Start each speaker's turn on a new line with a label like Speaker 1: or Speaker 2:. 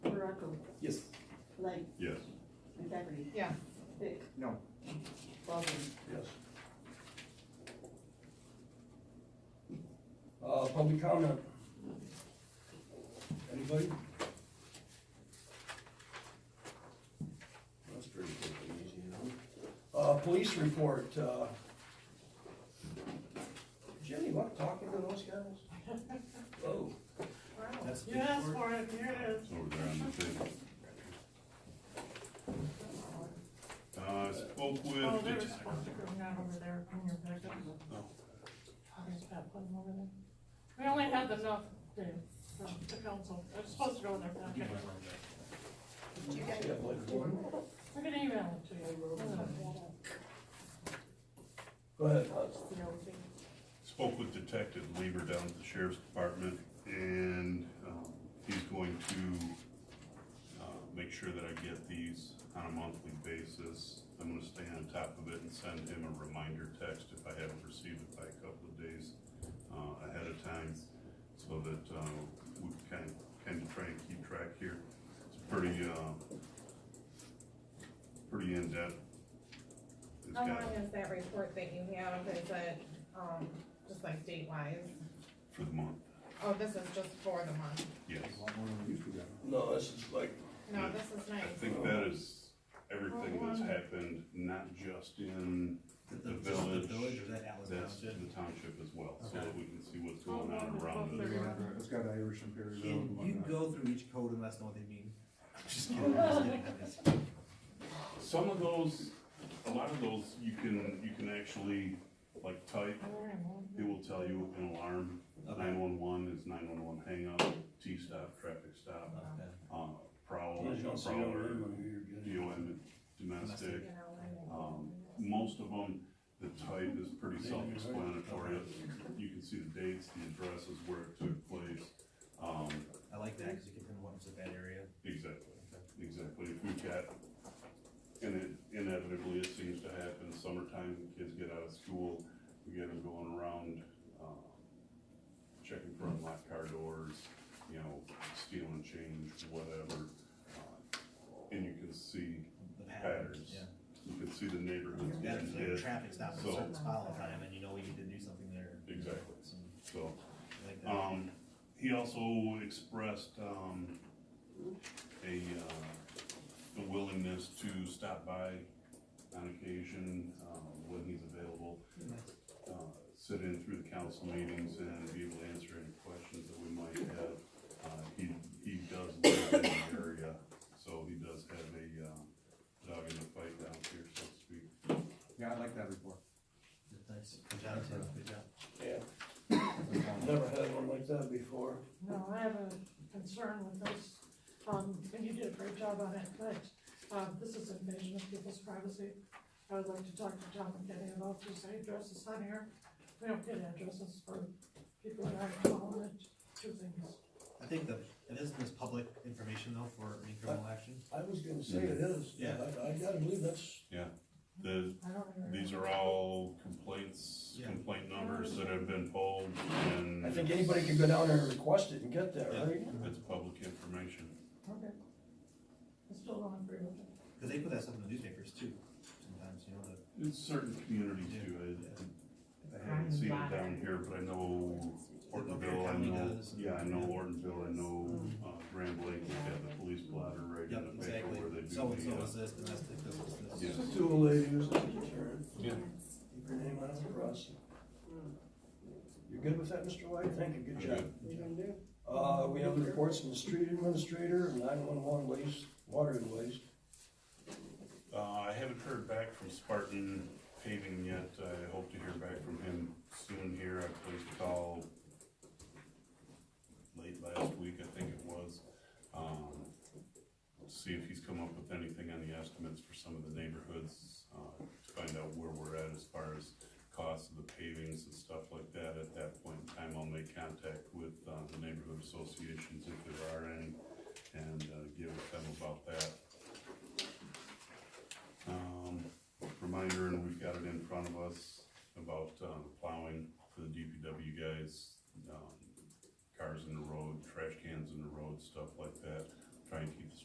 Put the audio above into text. Speaker 1: Yes.
Speaker 2: Lake,
Speaker 3: Yes.
Speaker 2: McCafferty,
Speaker 4: Yeah,
Speaker 2: Pick,
Speaker 1: No.
Speaker 2: Baldwin,
Speaker 5: Yes. Uh, public comment. Anybody? That's pretty quick and easy, you know? Uh, police report, uh. Jimmy, you want talking to those guys? Oh,
Speaker 1: That's
Speaker 4: you asked for it, here it is.
Speaker 3: It's over there on the table. Uh, I spoke
Speaker 4: Oh,
Speaker 3: with,
Speaker 4: there was
Speaker 3: did you-
Speaker 4: stickers not over there in your packet.
Speaker 3: Oh.
Speaker 4: I just gotta put them over there. We only have enough, Dave, for the council, it's supposed to go in their packet.
Speaker 5: see that light going?
Speaker 4: We're gonna email it to you.
Speaker 5: Go ahead.
Speaker 3: spoke with Detective Lieber down at the sheriff's department, and, um, he's going to, uh, make sure that I get these on a monthly basis. I'm gonna stay on top of it and send him a reminder text if I haven't received it by a couple of days, uh, ahead of time, so that, uh, we can, can try and keep track here. It's pretty, uh, pretty in-depth. It's
Speaker 6: How
Speaker 3: got-
Speaker 6: long is that report that you have, is it, um, just like date wise?
Speaker 3: For the month,
Speaker 6: Oh, this is just for the month,
Speaker 3: yes.
Speaker 5: No, this is like,
Speaker 6: no, this is
Speaker 3: I
Speaker 6: nice,
Speaker 3: think that is everything that's happened, not just in, The village.
Speaker 7: Village or that Allen
Speaker 3: that's the
Speaker 7: Township?
Speaker 3: township as well, so
Speaker 7: Okay.
Speaker 3: that we can see what's going on around us.
Speaker 1: It's got Irish Imperial
Speaker 7: Can
Speaker 1: and
Speaker 7: you
Speaker 1: whatnot.
Speaker 7: go through each code and let us know what they mean? I'm just kidding, I'm just kidding, I'm just um, kidding.
Speaker 3: Some of those, a lot of those, you can, you can actually, like, type, it will tell you an alarm,
Speaker 7: Okay,
Speaker 3: nine-one-one is nine-one-one hang up, T-stop, traffic stop,
Speaker 7: okay.
Speaker 3: um, prowl,
Speaker 5: you don't see it over there,
Speaker 3: prowler,
Speaker 5: but you're good.
Speaker 3: DOM,
Speaker 6: you
Speaker 3: domestic,
Speaker 6: know, and-
Speaker 3: Um, most of them, the type is pretty self-explanatory. You can see the dates, the addresses, where it took place. Um,
Speaker 7: I like that, cause you can pinpoint what's in that area.
Speaker 3: exactly, exactly. If we've got, and it inevitably, it seems to happen, summertime, kids get out of school, we get them going around, um, checking for unlocked car doors, you know, stealing change, whatever. Uh, And you can see,
Speaker 7: The patterns,
Speaker 3: Patterns.
Speaker 7: yeah.
Speaker 3: you can see the neighborhoods. that
Speaker 7: Patterns,
Speaker 3: it
Speaker 7: like
Speaker 3: is.
Speaker 7: traffic stops at a
Speaker 3: So-
Speaker 7: certain spot all the time and you know you need to do something there.
Speaker 3: Exactly.
Speaker 7: So,
Speaker 3: So,
Speaker 7: I like that.
Speaker 3: Um, he also expressed, um, a, uh, a willingness to stop by on occasion, um, when he's available. Uh, sit in through the council meetings and be able to answer any questions that we might have. Uh, he, he does live in the area, so he does have a, uh, dog in the fight down here, so to speak.
Speaker 1: Yeah, I like that report.
Speaker 7: Nice, good job, Tim, good job.
Speaker 5: Yeah, never had one like that before.
Speaker 4: No, I have a concern with this, um, and you did a great job on it, but, um, this is invasion of people's privacy. I would like to talk to Tom and Kenny about this addresses on here. We don't get addresses for people that aren't calling it two things.
Speaker 7: I think that, it isn't this public information though for any criminal action?
Speaker 5: I was gonna say it is, yeah, I, I gotta believe that's,
Speaker 3: The,
Speaker 4: I don't even.
Speaker 3: These are all complaints,
Speaker 7: Yeah.
Speaker 3: complaint numbers that have been pulled and.
Speaker 5: I think anybody could go down there and request it and get that, right?
Speaker 3: It's public information.
Speaker 4: Okay. I still don't agree with it.
Speaker 7: Cause they put that stuff in the newspapers too, sometimes, you know, the
Speaker 3: It's certain communities do it. I haven't seen it down here, but I know Ortonville, I know, yeah, I know Ortonville, I know, uh, Grand Lake, they have the police blotter right
Speaker 7: Yep,
Speaker 3: in the paper
Speaker 7: exactly.
Speaker 3: where they do the.
Speaker 7: So and so
Speaker 3: uh,
Speaker 7: is this, domestic, this is this.
Speaker 3: Yeah.
Speaker 5: It's a tool they use, it's a deterrent.
Speaker 3: Yeah.
Speaker 5: Keep your name out of the press. You're good with that, Mr. White? Thank you, good
Speaker 3: I'm
Speaker 5: job.
Speaker 3: good.
Speaker 5: Uh, we have the reports from the street administrator and nine-one-one waste, water and waste.
Speaker 3: Uh, I haven't heard back from Spartan paving yet, I hope to hear back from him soon here, I placed a call late last week, I think it was, um, to see if he's come up with anything on the estimates for some of the neighborhoods, uh, to find out where we're at as far as costs of the pavings and stuff like that, at that point in time, I'll make contact with, uh, the neighborhood associations if there are any, and, uh, give them about that. Um, reminder, and we've got it in front of us about, um, plowing for the DPW guys, um, cars in the road, trash cans in the road, stuff like that.